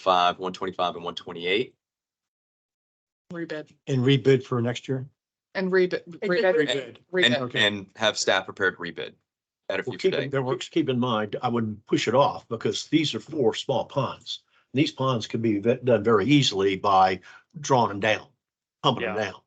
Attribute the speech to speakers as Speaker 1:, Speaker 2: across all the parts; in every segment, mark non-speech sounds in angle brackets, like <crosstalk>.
Speaker 1: five, one twenty-five and one twenty-eight.
Speaker 2: Rebid
Speaker 3: And rebid for next year?
Speaker 2: and rebid. rebid,
Speaker 3: Rebid.
Speaker 2: rebid.
Speaker 1: And,
Speaker 3: Okay.
Speaker 1: and have staff prepared rebid at a future
Speaker 4: Well, keep,
Speaker 1: date.
Speaker 4: in- that works. Keep in mind, I wouldn't push it off because these are four small ponds. These ponds can be ve- done very easily by drawing them down, pumping them down.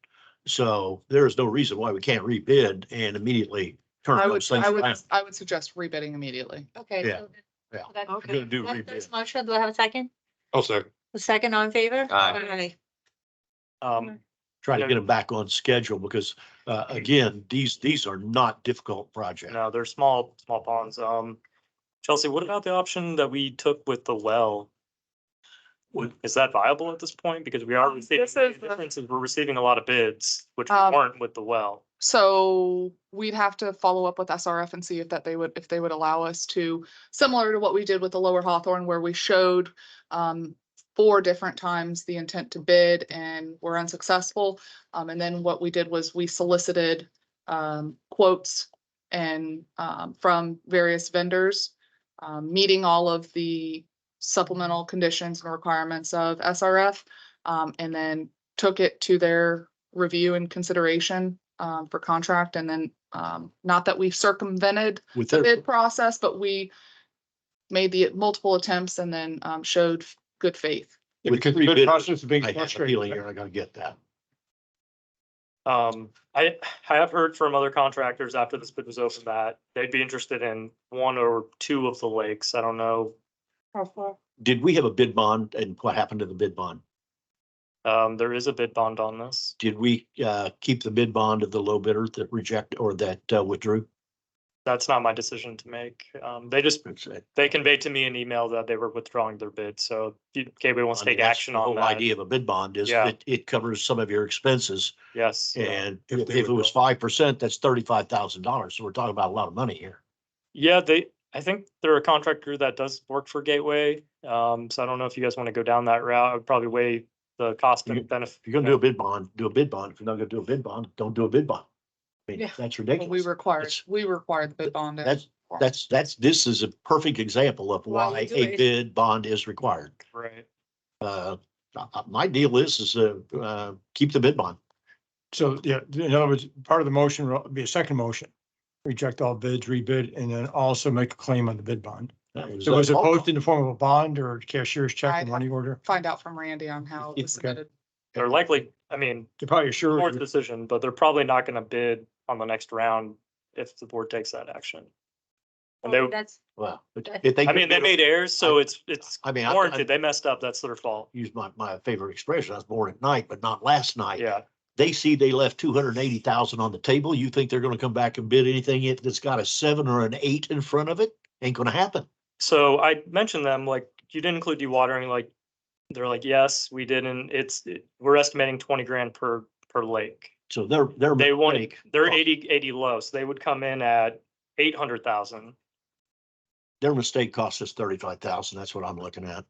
Speaker 4: So there is no reason why we can't rebid and immediately turn
Speaker 2: I would,
Speaker 4: those things
Speaker 2: I would,
Speaker 4: around.
Speaker 2: I would suggest rebidding immediately.
Speaker 5: Okay.
Speaker 4: Yeah,
Speaker 5: so that-
Speaker 4: yeah.
Speaker 5: so that's-
Speaker 4: We're gonna do
Speaker 5: that's- that's
Speaker 4: rebid.
Speaker 5: Motion, do I have a second?
Speaker 6: I'll second.
Speaker 5: A second on favor?
Speaker 1: Aye.
Speaker 6: Um,
Speaker 4: Try to
Speaker 6: Yeah.
Speaker 4: get them back on schedule because, uh, again, these, these are not difficult projects.
Speaker 6: no, they're small, small ponds. Um, Chelsea, what about the option that we took with the well? Would, is that viable at this point? Because we are
Speaker 2: Um,
Speaker 6: receiving,
Speaker 2: this
Speaker 6: the
Speaker 2: is the-
Speaker 6: difference is we're receiving a lot of bids, which we
Speaker 2: Um,
Speaker 6: weren't with the well.
Speaker 2: So we'd have to follow up with SRF and see if that they would, if they would allow us to, similar to what we did with the Lower Hawthorne where we showed um, four different times the intent to bid and were unsuccessful. Um, and then what we did was we solicited um, quotes and um, from various vendors, um, meeting all of the supplemental conditions and requirements of SRF. um, and then took it to their review and consideration um, for contract and then um, not that we circumvented
Speaker 4: With
Speaker 2: the
Speaker 4: their,
Speaker 2: bid process, but we made the multiple attempts and then um, showed good faith.
Speaker 3: Yeah,
Speaker 4: With
Speaker 3: Because
Speaker 4: three
Speaker 3: the
Speaker 4: bidders,
Speaker 3: process is being
Speaker 4: I have a feeling
Speaker 3: frustrating.
Speaker 4: you're not gonna get that.
Speaker 6: Um, I, I have heard from other contractors after this bid was open that they'd be interested in one or two of the lakes. I don't know.
Speaker 4: Did we have a bid bond and what happened to the bid bond?
Speaker 6: Um, there is a bid bond on this.
Speaker 4: Did we, uh, keep the bid bond of the low bidder that reject or that uh, withdrew?
Speaker 6: That's not my decision to make. Um, they just
Speaker 4: It's, uh,
Speaker 6: they conveyed to me an email that they were withdrawing their bid, so if Gateway wants to
Speaker 4: I mean,
Speaker 6: take
Speaker 4: that's
Speaker 6: action
Speaker 4: the
Speaker 6: on
Speaker 4: whole
Speaker 6: that.
Speaker 4: Idea of a bid bond is
Speaker 6: Yeah.
Speaker 4: it, it covers some of your expenses
Speaker 6: Yes,
Speaker 4: and
Speaker 3: If
Speaker 4: if
Speaker 3: they
Speaker 4: if it was
Speaker 3: withdraw.
Speaker 4: five percent, that's thirty-five thousand dollars. So we're talking about a lot of money here.
Speaker 6: yeah, they, I think they're a contractor that does work for Gateway, um, so I don't know if you guys want to go down that route, I would probably weigh the cost
Speaker 4: You-
Speaker 6: and benefit.
Speaker 4: If you're gonna do a bid bond, do a bid bond. If you're not gonna do a bid bond, don't do a bid bond. I mean,
Speaker 2: Yeah.
Speaker 4: that's
Speaker 2: But We
Speaker 4: ridiculous.
Speaker 2: required,
Speaker 4: It's-
Speaker 2: we required the bid bond. and-
Speaker 4: That's, that's, that's, this is a perfect example of
Speaker 5: Why you
Speaker 4: why
Speaker 5: do
Speaker 4: a
Speaker 5: it.
Speaker 4: bid bond is required.
Speaker 6: Right,
Speaker 4: Uh, I- I- my deal is, is, uh, uh, keep the bid bond.
Speaker 3: So, yeah, in other words, part of the motion will be a second motion. Reject all bids, rebid, and then also make a claim on the bid bond. So was it posted in the form of a bond or cashier's
Speaker 2: I-
Speaker 3: check or money order?
Speaker 2: Find out from Randy on how it was
Speaker 3: Okay.
Speaker 2: submitted.
Speaker 6: they're likely, I mean,
Speaker 3: You're probably sure.
Speaker 6: board's decision, but they're probably not gonna bid on the next round if the board takes that action. And they,
Speaker 5: That's,
Speaker 4: Wow. But if they.
Speaker 6: I mean, they made errors, so it's, it's
Speaker 4: I mean, I- I-
Speaker 6: warranted, they messed up, that's their fault,
Speaker 4: use my, my favorite expression, I was born at night, but not last night.
Speaker 6: yeah,
Speaker 4: They see they left two hundred and eighty thousand on the table. You think they're gonna come back and bid anything in- that's got a seven or an eight in front of it? Ain't gonna happen.
Speaker 6: So I mentioned them, like, you didn't include dewatering, like, they're like, yes, we didn't, it's, it- we're estimating twenty grand per, per lake.
Speaker 4: So they're, they're.
Speaker 6: They wanted, they're eighty, eighty low, so they would come in at eight hundred thousand. e-
Speaker 4: Their mistake cost us thirty-five thousand. That's what I'm looking at.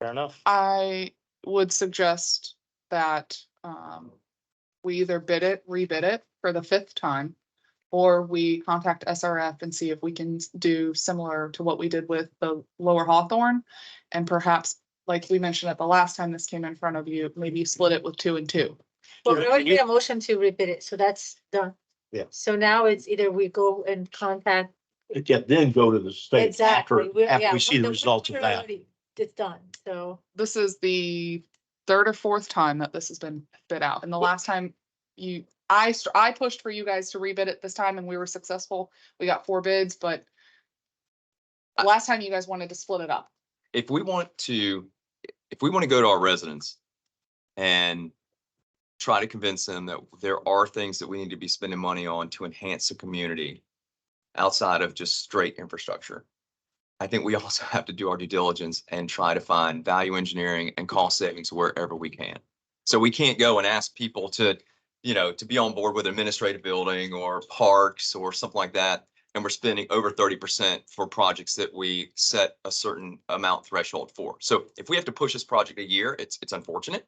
Speaker 6: Fair enough.
Speaker 2: I would suggest that um, we either bid it, rebid it for the fifth time, or we contact SRF and see if we can s- do similar to what we did with the Lower Hawthorne. And perhaps, like we mentioned at the last time this came in front of you, maybe you split it with two and two.
Speaker 5: well,
Speaker 4: Yeah,
Speaker 5: we already
Speaker 4: you-
Speaker 5: made a motion to rebid it, so that's done.
Speaker 4: Yeah.
Speaker 5: So now it's either we go and contact.
Speaker 4: Yeah, then go to the state
Speaker 5: Exactly.
Speaker 4: after,
Speaker 5: we're- yeah,
Speaker 4: after we see the
Speaker 5: we're-
Speaker 4: results of
Speaker 5: we're
Speaker 4: that.
Speaker 5: already- It's done, so.
Speaker 2: This is the third or fourth time that this has been bid out. And the last time you, I, st- I pushed for you guys to rebid it this time and we were successful. We got four bids, but last time you guys wanted to split it up.
Speaker 1: If we want to, if we want to go to our residents and try to convince them that there are things that we need to be spending money on to enhance the community outside of just straight infrastructure. I think we <laughs> also have to do our due diligence and try to find value engineering and cost savings wherever we can. So we can't go and ask people to, you know, to be on board with administrative building or parks or something like that. And we're spending over thirty percent for projects that we set a certain amount threshold for. So if we have to push this project a year, it's, it's unfortunate.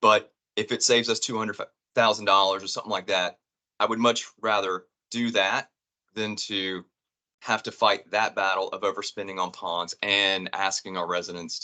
Speaker 1: But if it saves us two hundred thousand dollars or something like that, I would much rather do that than to have to fight that battle of overspending on ponds and asking our residents